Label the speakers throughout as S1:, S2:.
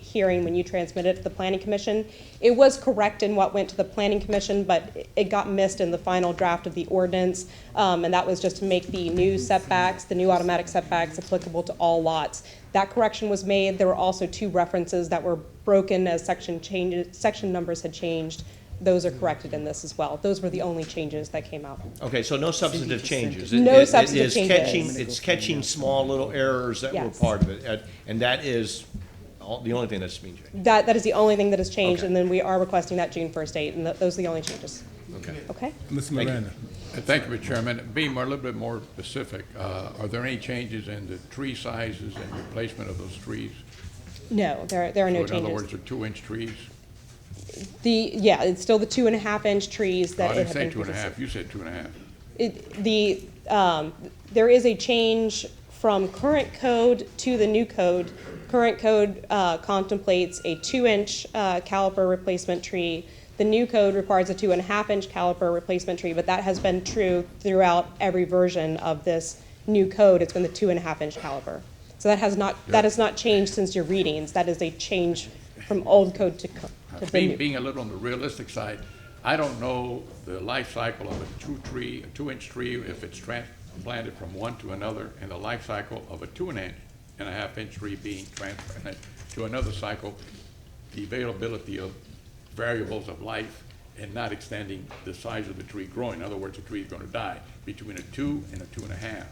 S1: hearing when you transmitted it to the planning commission. It was correct in what went to the planning commission, but it got missed in the final draft of the ordinance. Um, and that was just to make the new setbacks, the new automatic setbacks applicable to all lots. That correction was made. There were also two references that were broken as section changes, section numbers had changed. Those are corrected in this as well. Those were the only changes that came out.
S2: Okay, so no substantive changes. It-
S1: No
S2: it- it is
S1: substantive
S2: catching-
S1: changes.
S2: It's catching small little errors that were
S1: Yes.
S2: part of it, and- and that is all- the only thing that's being changed.
S1: That, that is the only thing that has changed,
S2: Okay.
S1: and then we are requesting that June first date, and th- those are the only changes.
S2: Okay.
S1: Okay?
S3: Mr. Miranda.
S4: Uh, Thank you, Mr. Chairman. Be more, a little bit more specific. Uh, Are there any changes in the tree sizes and replacement of those trees?
S1: No, there, there are no
S4: So in other
S1: changes.
S4: words, they're two-inch trees?
S1: The, yeah, it's still the two and a half inch trees
S4: Oh, I
S1: that it
S4: didn't
S1: had
S4: say
S1: been
S4: two and a half,
S1: previously.
S4: you said two and a half.
S1: It, the, um, there is a change from current code to the new code. Current code, uh, contemplates a two inch, uh, caliper replacement tree. The new code requires a two and a half inch caliper replacement tree, but that has been true throughout every version of this new code. It's been the two and a half inch caliper. So that has not, that has not changed since your readings. That is a change from old code to, co- to the
S4: Being,
S1: new.
S4: being a little on the realistic side, I don't know the life cycle of a two tree, a two-inch tree, if it's transplanted from one to another, and the life cycle of a two and a and a half inch tree being transplanted to another cycle, the availability of variables of life and not extending the size of the tree growing. In other words, the tree is gonna die between a two and a two and a half.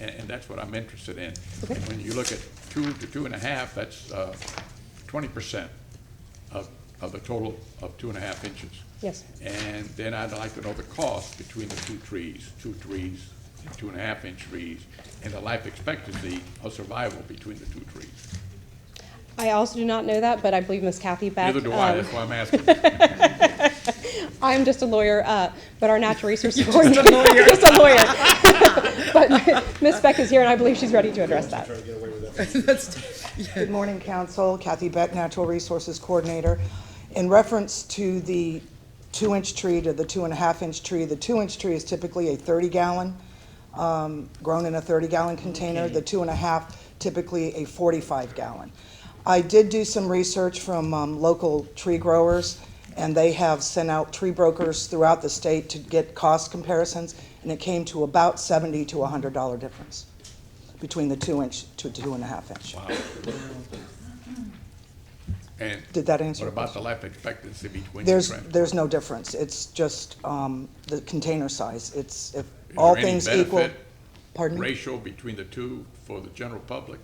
S4: And, and that's what I'm interested in. And When you look at two to two and a half, that's, uh, twenty percent of, of a total of two and a half inches.
S1: Yes.
S4: And then I'd like to know the cost between the two trees, two trees, two and a half inch trees, and the life expectancy of survival between the two trees.
S1: I also do not know that, but I believe Miss Kathy Beck.
S4: Neither do I,
S1: um,
S4: that's why I'm asking.
S1: I'm just a lawyer, uh, but our natural resources coordinator. Just a lawyer. But Ms. Beck is here, and I believe she's ready to address that.
S5: Good morning, Council. Kathy Beck, Natural Resources Coordinator. In reference to the two-inch tree to the two-and-a-half-inch tree, the two-inch tree is typically a 30-gallon, grown in a 30-gallon container. The two-and-a-half, typically a 45-gallon. I did do some research from um, local tree growers, and they have sent out tree brokers throughout the state to get cost comparisons, and it came to about $70 to $100 difference between the two-inch to two-and-a-half-inch.
S4: And
S5: Did that answer
S4: What
S5: your
S4: about the life expectancy between the
S5: There's,
S4: trees?
S5: there's no difference. It's just um, the container size. It's, if all things equal. Pardon me?
S4: Ratio between the two for the general public?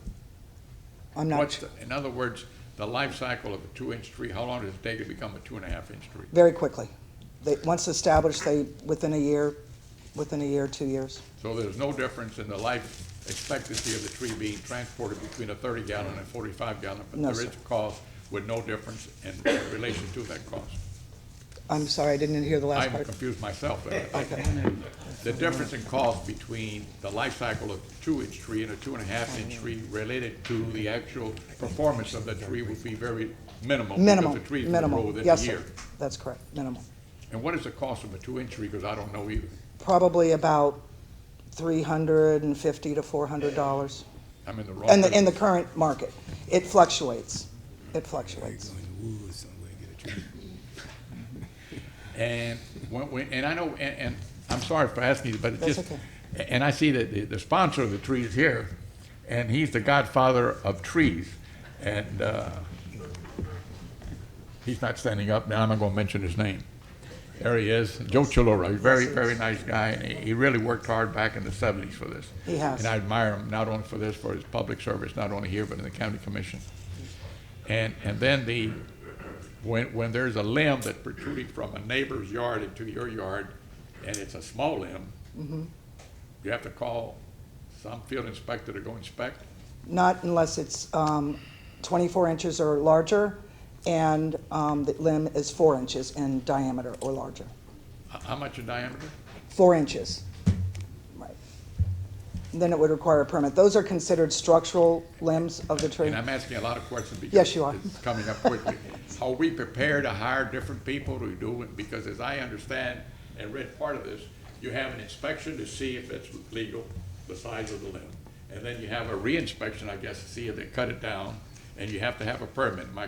S5: I'm not,
S4: What's, the- in other words, the life cycle of a two-inch tree, how long does it take to become a two and a half inch tree?
S5: very quickly. They, once established, they, within a year, within a year, two years.
S4: So there's no difference in the life expectancy of the tree being transported between a thirty gallon and forty-five gallon, but
S5: No,
S4: there is
S5: sir.
S4: a cost with no difference in relation to that cost.
S5: I'm sorry, I didn't hear the last
S4: I'm
S5: part. Oh.
S4: confused myself there. I think. The difference in cost between the life cycle of a two-inch tree and a two-and-a-half-inch tree related to the actual performance of the tree would be very minimal.
S5: Minimal,
S4: Because the trees would grow
S5: minimal.
S4: within a
S5: Yes, sir.
S4: year.
S5: That's correct, minimal.
S4: And what is the cost of a two-inch tree, because I don't know either.
S5: Probably about three hundred and fifty to four hundred dollars.
S4: I'm in the wrong.
S5: In the, in the
S4: business.
S5: current market. It fluctuates. It fluctuates.
S4: And when, when, and I know, and, and I'm sorry for asking you, but it
S5: That's
S4: just,
S5: okay.
S4: and I see that the, the sponsor of the tree is here, and he's the godfather of trees, and, uh, he's not standing up now, I'm not gonna mention his name. There he is, Joe Chilora, very, very nice guy, and he, he really worked hard back in the seventies for this.
S5: He has.
S4: And I admire him, not only for this, for his public service, not only here, but in the county commission. And, and then the, when, when there's a limb that protruding from a neighbor's yard into your yard, and it's a small limb,
S5: Mm-hmm.
S4: you have to call some field inspector to go inspect.
S5: Not unless it's um, 24 inches or larger, and um, the limb is four inches in diameter or larger.
S4: How, how much in diameter?
S5: Four inches. Right. Then it would require a permit. Those are considered structural limbs of the tree.
S4: And I'm asking a lot of questions because
S5: Yes, you are.
S4: it's coming up quickly. Are we prepared to hire different people to do it? Because as I understand and read part of this, you have an inspection to see if it's legal, the size of the limb. And then you have a re-inspection, I guess, to see if they cut it down. and you have to have a permit. My